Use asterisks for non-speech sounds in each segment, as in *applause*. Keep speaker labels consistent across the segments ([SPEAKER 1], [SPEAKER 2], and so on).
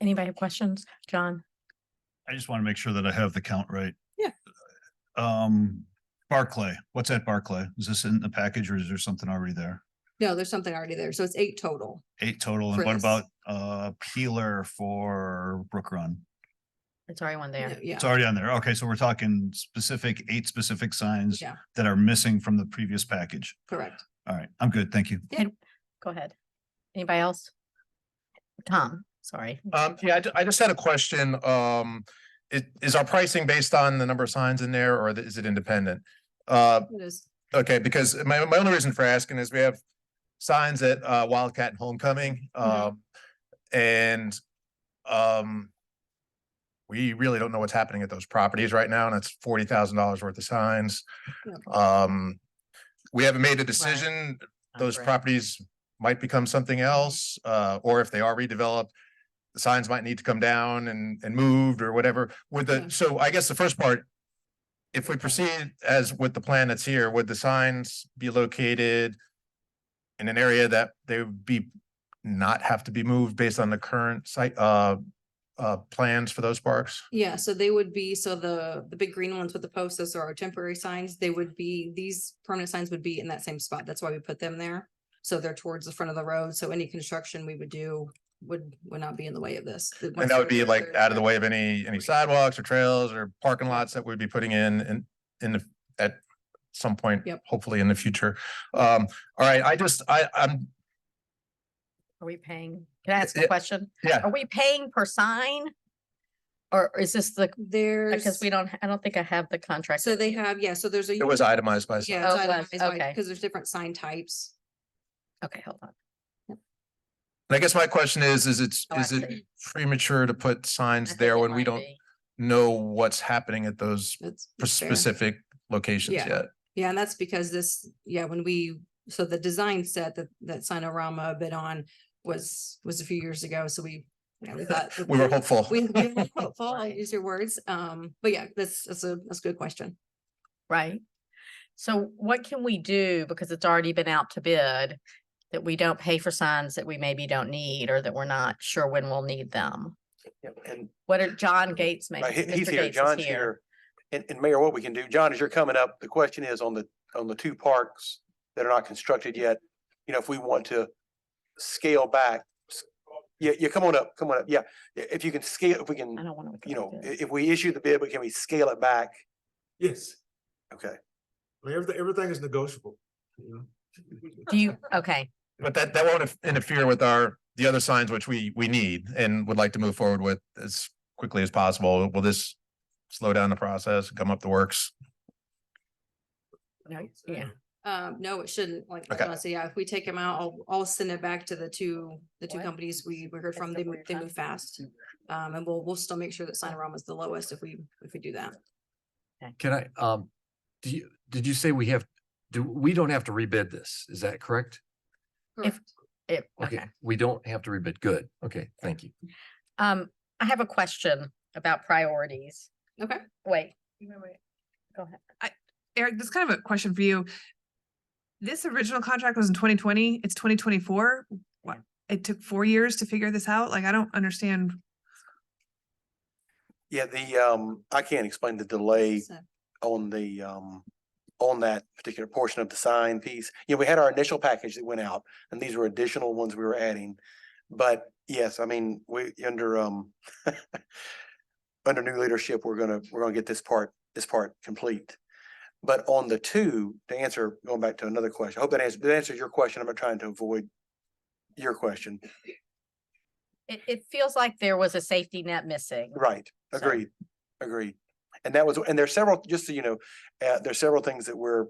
[SPEAKER 1] Anybody have questions? John?
[SPEAKER 2] I just want to make sure that I have the count right.
[SPEAKER 3] Yeah.
[SPEAKER 2] Um, Barclay, what's at Barclay? Is this in the package or is there something already there?
[SPEAKER 3] No, there's something already there. So it's eight total.
[SPEAKER 2] Eight total. And
[SPEAKER 3] For
[SPEAKER 2] what
[SPEAKER 3] this.
[SPEAKER 2] about uh Peeler for Brook Run?
[SPEAKER 1] It's already one
[SPEAKER 3] No,
[SPEAKER 1] there.
[SPEAKER 3] Yeah.
[SPEAKER 2] It's already on there. Okay, so we're talking specific, eight specific signs
[SPEAKER 3] Yeah.
[SPEAKER 2] that are missing from the previous package.
[SPEAKER 3] Correct.
[SPEAKER 2] All right, I'm good. Thank you.
[SPEAKER 1] Go ahead. Anybody else? Tom, sorry.
[SPEAKER 4] Um, yeah, I, ju- I just had a question. Um, it, is our pricing based on the number of signs in there or is it independent? Uh,
[SPEAKER 3] It is.
[SPEAKER 4] okay, because my, my only reason for asking is we have signs at, uh, Wildcat and Homecoming, um, and, um, we really don't know what's happening at those properties right now, and it's forty thousand dollars worth of signs.
[SPEAKER 3] Yeah.
[SPEAKER 4] Um, we haven't made a decision those properties might become something else, uh, or if they are redeveloped, the signs might need to come down and, and moved or whatever with
[SPEAKER 3] Yeah.
[SPEAKER 4] the, so I guess the first part. If we proceed as with the plan that's here, would the signs be located in an area that they would be not have to be moved based on the current site, uh, uh, plans for those parks?
[SPEAKER 3] Yeah, so they would be, so the, the big green ones with the posts, those are our temporary signs. They would be, these permanent signs would be in that same spot. That's why we put them there. So they're towards the front of the road. So any construction we would do would, would not be in the way of this. The- once
[SPEAKER 4] And that would
[SPEAKER 3] they're
[SPEAKER 4] be
[SPEAKER 3] there,
[SPEAKER 4] like
[SPEAKER 3] they're
[SPEAKER 4] out of the
[SPEAKER 3] there.
[SPEAKER 4] way of any, any sidewalks or trails or parking lots that we'd be putting in and in the, at some point,
[SPEAKER 3] Yep.
[SPEAKER 4] hopefully in the future. Um, all right, I just, I, I'm,
[SPEAKER 1] Are we paying? Can I ask a
[SPEAKER 4] Yeah.
[SPEAKER 1] question?
[SPEAKER 4] yeah,
[SPEAKER 1] Are we paying per sign? Or is this the,
[SPEAKER 3] There's.
[SPEAKER 1] because we don't, I don't think I have the contract.
[SPEAKER 3] So they have, yeah, so there's a.
[SPEAKER 4] it was itemized by, sign.
[SPEAKER 3] Yeah,
[SPEAKER 1] Oh, it was, okay.
[SPEAKER 3] because there's different sign types.
[SPEAKER 1] Okay, hold on.
[SPEAKER 4] and I guess my question is, is it's,
[SPEAKER 1] Oh, I
[SPEAKER 4] is it
[SPEAKER 1] see.
[SPEAKER 4] premature to put
[SPEAKER 1] I
[SPEAKER 4] signs
[SPEAKER 1] think
[SPEAKER 4] there
[SPEAKER 1] it
[SPEAKER 4] when we
[SPEAKER 1] might
[SPEAKER 4] don't
[SPEAKER 1] be.
[SPEAKER 4] know what's happening at those
[SPEAKER 3] That's.
[SPEAKER 4] p-
[SPEAKER 3] that's fair.
[SPEAKER 4] specific locations
[SPEAKER 3] Yeah.
[SPEAKER 4] yet?
[SPEAKER 3] Yeah, and that's because this, yeah, when we, so the design set that, that Sinorama bid on was, was a few years ago, so we. yeah, we thought that
[SPEAKER 4] *laughs* We were hopeful.
[SPEAKER 3] *laughs* We, we were hopeful,
[SPEAKER 1] *laughs*
[SPEAKER 3] I'll
[SPEAKER 1] Right.
[SPEAKER 3] use your words, um, but yeah, that's, that's a, that's a good question.
[SPEAKER 1] Right? So what can we do? Because it's already been out to bid that we don't pay for signs that we maybe don't need or that we're not sure when we'll need them.
[SPEAKER 5] Yeah, and
[SPEAKER 1] What are John Gates making?
[SPEAKER 5] uh, he- he's
[SPEAKER 1] Mr.
[SPEAKER 5] here,
[SPEAKER 1] Gates is
[SPEAKER 5] John's here. And, and Mayor, what we can do, John, as you're coming up, the question is on the, on the two parks that are not constructed yet. You know, if we want to scale back, s- yeah, yeah, come on up, come on up. Yeah, i- if you can scale, if we
[SPEAKER 1] I
[SPEAKER 5] can,
[SPEAKER 1] don't want to.
[SPEAKER 5] you know, i- if we issue the bid, but can we scale it back?
[SPEAKER 6] Yes,
[SPEAKER 5] Okay.
[SPEAKER 6] I mean, everything, everything is negotiable, you know?
[SPEAKER 1] Do you, okay,
[SPEAKER 4] But that, that won't inf- interfere with our, the other signs which we, we need and would like to move forward with as quickly as possible. Will this slow down the process, come up the works?
[SPEAKER 1] No, yeah.
[SPEAKER 3] Um, no, it shouldn't, like,
[SPEAKER 4] Okay.
[SPEAKER 3] honestly, yeah, if we take them out, I'll, I'll send it back to the two, the two
[SPEAKER 1] What?
[SPEAKER 3] companies we, we heard
[SPEAKER 1] That's
[SPEAKER 3] from,
[SPEAKER 1] the
[SPEAKER 3] they,
[SPEAKER 1] one
[SPEAKER 3] move-
[SPEAKER 1] you're
[SPEAKER 3] they
[SPEAKER 1] talking
[SPEAKER 3] move fast. Um, and we'll, we'll still make sure that Sinorama is the lowest if we, if we do that.
[SPEAKER 7] Can I, um, do you, did you say we have, do, we don't have to rebid this? Is that correct?
[SPEAKER 1] If-
[SPEAKER 3] Correct.
[SPEAKER 1] it, okay.
[SPEAKER 7] Okay, we don't have to rebid. Good. Okay, thank you.
[SPEAKER 1] Um, I have a question about priorities.
[SPEAKER 3] Okay.
[SPEAKER 1] Wait,
[SPEAKER 8] Eric, this is kind of a question for you. This original contract was in twenty twenty, it's twenty twenty-four. What, it took four years to figure this out? Like, I don't understand.
[SPEAKER 5] Yeah, the, um, I can't explain the delay
[SPEAKER 3] So-
[SPEAKER 5] on the, um, on that particular portion of the sign piece. Yeah, we had our initial package that went out and these were additional ones we were adding. But yes, I mean, we, under, um, *laughs* under new leadership, we're gonna, we're gonna get this part, this part complete. But on the two, to answer, going back to another question, I hope that answers, that answers your question. I'm not trying to avoid your question.
[SPEAKER 1] it, it feels like there was a safety net missing.
[SPEAKER 5] Right,
[SPEAKER 1] So-
[SPEAKER 5] agreed, agreed. And that was, and there's several, just so you know, uh, there's several things that we're,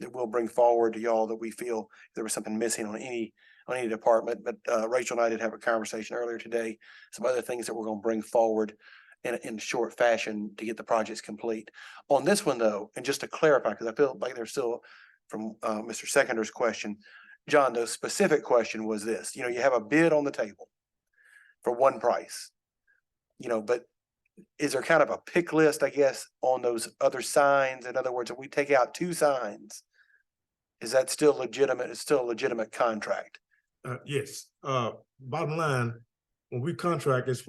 [SPEAKER 5] that we'll bring forward to y'all that we feel there was something missing on any, on any department, but, uh, Rachel and I did have a conversation earlier today. Some other things that we're gonna bring forward in, in short fashion to get the projects complete. On this one though, and just to clarify, because I feel like there's still, from, uh, Mr. Seconder's question, John, the specific question was this, you know, you have a bid on the table for one price. You know, but is there kind of a pick list, I guess, on those other signs? In other words, if we take out two signs, is that still legitimate? It's still a legitimate contract?
[SPEAKER 6] Uh, yes, uh, bottom line, when we contract, it's what